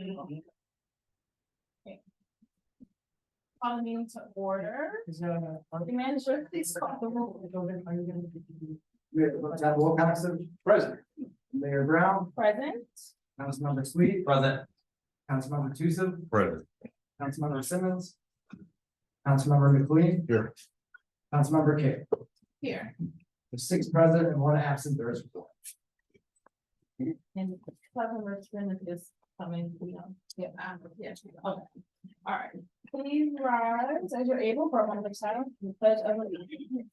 Okay. Calling meeting to order. The manager, please call the roll. Mayor Pro Tem Wilcoxon, present. Mayor Brown, Present. Councilmember Sweet, Present. Councilmember Tucson, Present. Councilmember Simmons. Councilmember McLean. Here. Councilmember K. Here. There's six present and one absent, there is four. And Cleveland Richmond is coming, we don't, yeah, um, yeah, she- okay. All right, please rise as you're able for a moment of silence, the pledge of allegiance.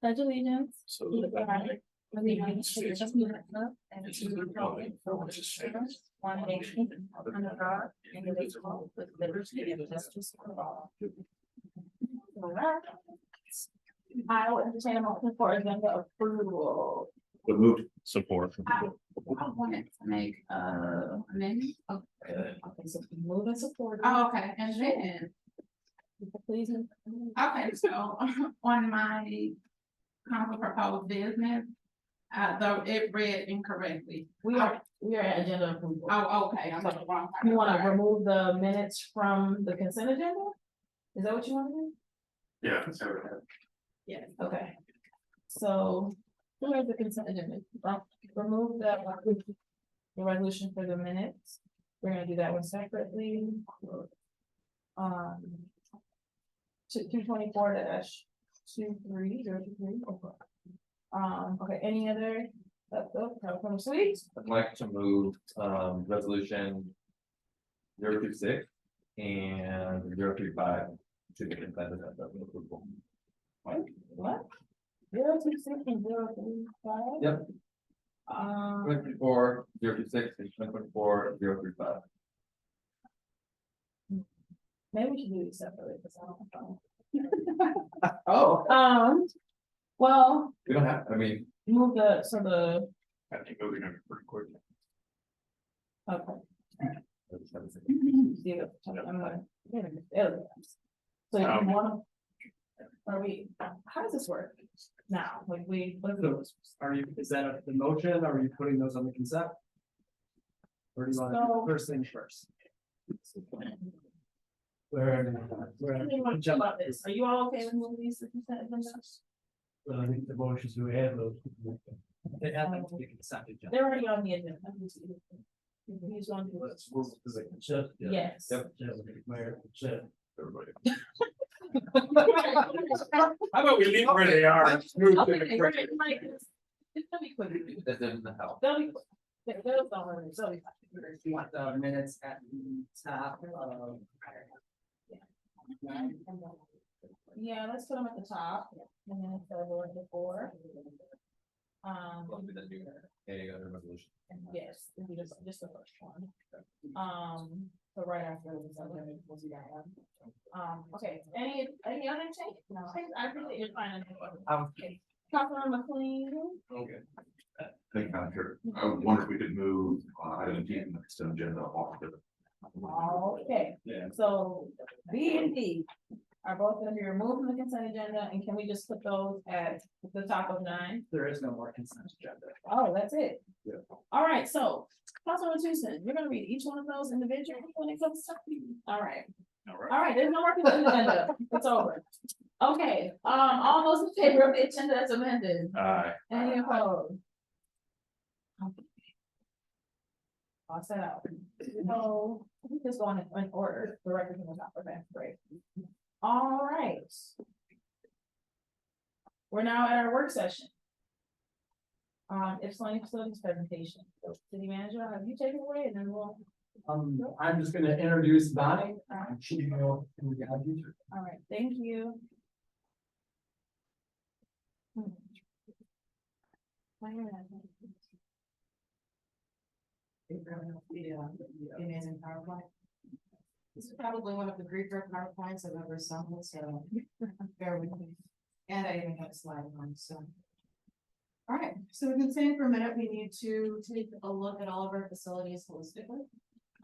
Pledge allegiance. So. to the flag of the United States of America and to the republic for which it stands, One nation, under God, indivisible, with liberty and justice for all. All right. I will entertain a motion for agenda approval. The move. Support. I I Oh, wanted to make uh amendment. Okay, so move and support. Oh, Okay, and then, Please. okay, so on my council proposed business, uh, though it read incorrectly. We are, we are at agenda approval. Oh, okay, I'm on the wrong. You wanna remove the minutes from the consent agenda? Is that what you wanna do? Yeah. Yes. Okay. So, who has the consent agenda? Well, Remove the the resolution for the minutes. We're gonna do that one separately. Um. Two, two twenty-four dash two three zero two three. oh, Um, okay, any other, that's, that's from sweet, I'd like to move um resolution. Zero two six and zero two five to the consent agenda for approval. what? Zero two six and zero three five? Yep. Um. Twenty four, zero two six, and twenty twenty four, zero three five. Maybe we should do these separately, because I don't know. Oh. Um, well, We don't have, I mean. move the, so the, I think we're gonna pretty quick. okay, see the, I'm gonna. wait a minute, there we go. So you Um. wanna. Are we, how does this work now, like we, what is it? Are you, is that the motion, are you putting those on the consent? Or do you want to So- do first things first? Where, where? Anything wanna chill about this, are you all okay with moving these to consent agenda? I think the motions we have those. They have them to be consent agenda. They're already on the agenda. I'm just- You just wanna do it. Yes. How about we leave where they are? Okay, we're gonna, like, it's- it's gonna be quick. That doesn't help. They'll be, quick. they'll, they'll, hurt, they'll be fine. If you want the minutes at the top of. Yeah, let's put them at the top, and then it's over at the four. Um, Any other resolution? yes, it'll be just, just the first one. Um, so right after this, I'm gonna, we'll do that one. Um, okay, any, any other change? No, I- I appreciate your finding. Um, Councilman McLean, Okay. Thank you, uh, Madam Chair. I wonder if we could move uh, item D in the consent agenda off the. okay, Yeah. so B and D are both gonna be removed from the consent agenda, and can we just put those at the top of nine? there is no more consent agenda. Oh, that's it? Yeah. All right, so, Councilwoman Tucson, you're gonna read each one of those individually when it comes to, all right. All right. All right, there's no more consent agenda, it's over. Okay, um, all those in favor of the agenda as amended, Aye. any opposed? I'll set out, no, we just go in, in order, the record was not prepared, great. All right. We're now at our work session. Um, Ypsilanti facilities presentation, So, city manager, have you taken away and then we'll, Um, I'm just gonna introduce Bonnie, um, she will, who we have you. all right, thank you. Hmm. Why not? uh, Amazing PowerPoint. This is probably one of the griefer PowerPoints I've ever seen, so bear with me. And I even have a slide on, so. All right, so we've been saying for a minute, we need to take a look at all of our facilities holistically.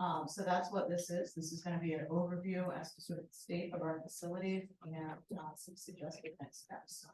Um, so that's what this is. This is gonna be an overview as to sort of the state of our facilities and uh, some suggested next steps.